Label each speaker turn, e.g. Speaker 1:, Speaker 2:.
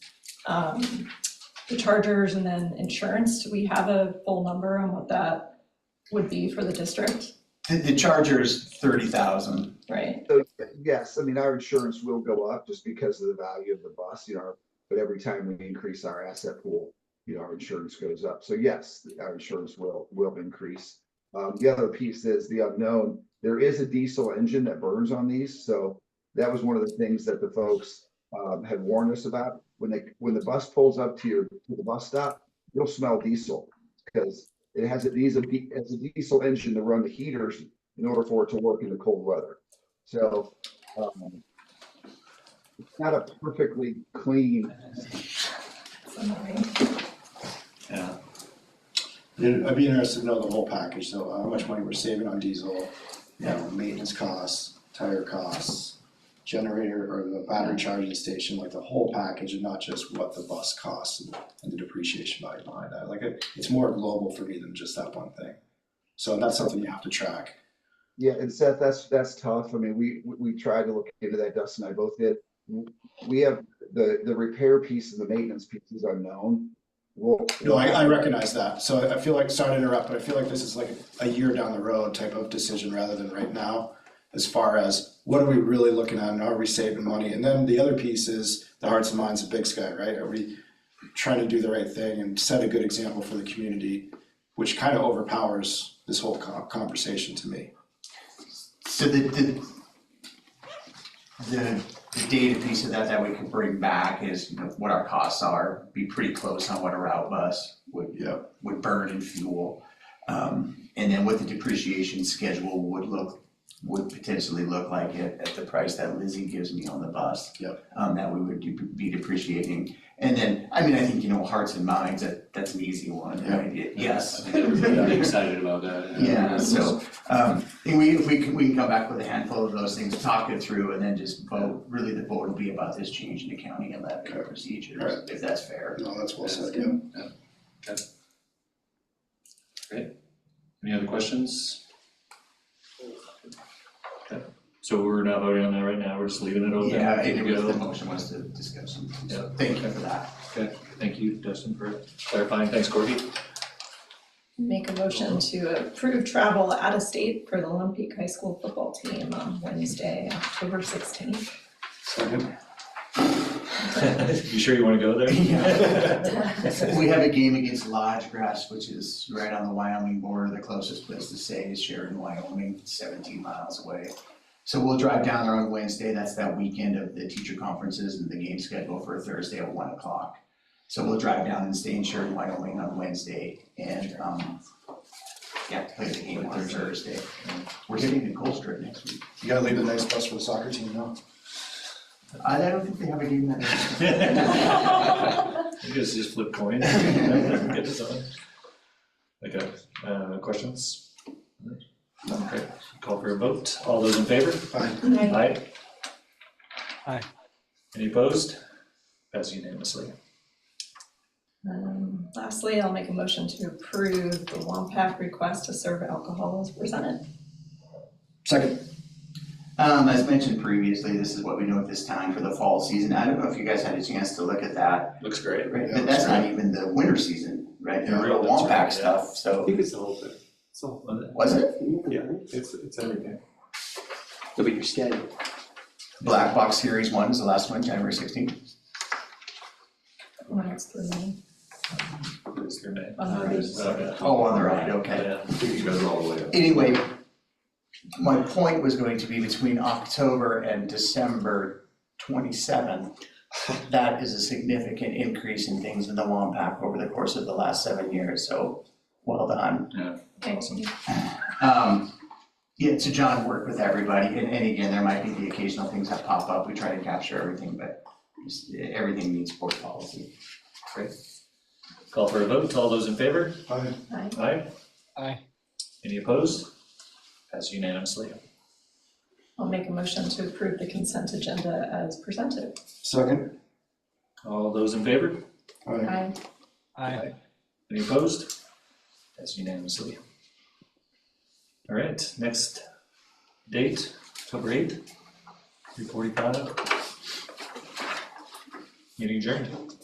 Speaker 1: um, the chargers and then insurance, do we have a full number on what that would be for the district,
Speaker 2: The, the charger is thirty thousand.
Speaker 1: right?
Speaker 3: So, yes, I mean, our insurance will go up just because of the value of the bus, you know, but every time we increase our asset pool, you know, our insurance goes up. So yes, our insurance will, will increase. Um, the other piece is the unknown. There is a diesel engine that burns on these, so that was one of the things that the folks um, had warned us about. When they, when the bus pulls up to your, to the bus stop, you'll smell diesel because it has a diesel, it has a diesel engine to run the heaters in order for it to work in the cold weather. So, um, it's not a perfectly clean,
Speaker 4: Yeah. I'd I'd be interested to know the whole package, though, how much money we're saving on diesel, you know, maintenance costs, tire costs, generator or the battery charging station, like the whole package and not just what the bus costs and and the depreciation value behind that. Like, it- it's more global for me than just that one thing. So that's something you have to track.
Speaker 3: yeah, and Seth, that's, that's tough. I mean, we, we we tried to look into that, Dustin and I both did. We have, the, the repair piece and the maintenance piece is unknown. We'll.
Speaker 4: No, I, I recognize that. So I- I feel like, sorry to interrupt, but I feel like this is like a year down the road type of decision rather than right now. As far as what are we really looking at and are we saving money? And then the other piece is the hearts and minds of Big Sky, right? Are we trying to do the right thing and set a good example for the community, which kind of overpowers this whole co- conversation to me.
Speaker 2: So the, the, the, the data piece of that that we can bring back is, you know, what our costs are, be pretty close on what a route bus would,
Speaker 4: Yeah.
Speaker 2: would burn in fuel. Um, and then what the depreciation schedule would look, would potentially look like at, at the price that Lizzie gives me on the bus.
Speaker 4: Yep.
Speaker 2: Um, that we would de- be depreciating. And then, I mean, I think, you know, hearts and minds, that, that's an easy one, right? It- Yes.
Speaker 5: I think everybody's really excited about that.
Speaker 2: Yeah, so, um, and we, if we can, we can come back with a handful of those things, talk it through, and then just vote, really the vote will be about this change in accounting and levy procedures, if that's fair.
Speaker 4: No, that's well
Speaker 5: That's
Speaker 4: said, yeah.
Speaker 5: good. Yeah, okay. Great. Any other questions? Okay, so we're not voting on that right now, we're just leaving it open.
Speaker 2: Yeah, I think
Speaker 5: Good to
Speaker 2: if
Speaker 5: go.
Speaker 2: the motion was to discuss them, so thank you for that.
Speaker 5: Okay, thank you, Dustin, for clarifying. Thanks, Corky.
Speaker 1: Make a motion to approve travel out of state for the Olympic High School football team on Wednesday, October sixteenth.
Speaker 4: Second.
Speaker 5: You sure you wanna go there?
Speaker 2: Yeah.
Speaker 1: That's
Speaker 2: We have a game against Lodge Grass, which is right on the Wyoming border, the closest place to stay is Sheridan, Wyoming, seventeen miles away. So we'll drive down there on Wednesday, that's that weekend of the teacher conferences and the game schedule for Thursday at one o'clock. So we'll drive down and stay in Sheridan, Wyoming on Wednesday and, um, yeah, play the game on Thursday. We're hitting the Gold Strip next week.
Speaker 4: You gotta leave a nice bus for the soccer team now.
Speaker 2: I don't think they have a game that night.
Speaker 5: You guys just flip coins. Get to something. Okay, uh, questions? Okay, call for a vote. All those in favor?
Speaker 4: Fine.
Speaker 5: Aye.
Speaker 6: Aye.
Speaker 5: Any opposed? Passed unanimously.
Speaker 1: Um, lastly, I'll make a motion to approve the Wampac request to serve alcohol as presented.
Speaker 4: Second.
Speaker 2: Um, as mentioned previously, this is what we know at this time for the fall season. I don't know if you guys had a chance to look at that,
Speaker 5: Looks great.
Speaker 2: right?
Speaker 4: Yeah,
Speaker 2: But that's not even the winter season, right? The
Speaker 5: Yeah,
Speaker 2: real
Speaker 5: that's
Speaker 2: Wampak
Speaker 5: right, yeah.
Speaker 2: stuff,
Speaker 7: I
Speaker 2: so,
Speaker 7: think it's the whole thing. It's the whole
Speaker 2: was it
Speaker 7: thing. Yeah, it's, it's everything. Look at your schedule.
Speaker 2: Black Box Series One is the last one, January sixteenth?
Speaker 1: One next to me.
Speaker 5: It's your name.
Speaker 1: On the right.
Speaker 5: Okay.
Speaker 2: Oh, on the right, okay.
Speaker 5: Yeah.
Speaker 2: Anyway, my point was going to be between October and December twenty-seven. That is a significant increase in things in the Wampak over the course of the last seven years, so well done.
Speaker 1: Thank you.
Speaker 2: Um, yeah, so John worked with everybody, and, and again, there might be the occasional things that pop up, we try to capture everything, but just, eh, everything needs board policy.
Speaker 5: Call for a vote. All those in favor?
Speaker 4: Fine.
Speaker 1: Aye.
Speaker 5: Aye.
Speaker 6: Aye.
Speaker 5: Any opposed? Passed unanimously.
Speaker 1: I'll make a motion to approve the consent agenda as presented.
Speaker 4: Second.
Speaker 5: All those in favor?
Speaker 4: Aye.
Speaker 1: Aye.
Speaker 6: Aye.
Speaker 5: Any opposed? That's unanimously. All right, next date, October eighth, three forty-five. Meeting adjourned.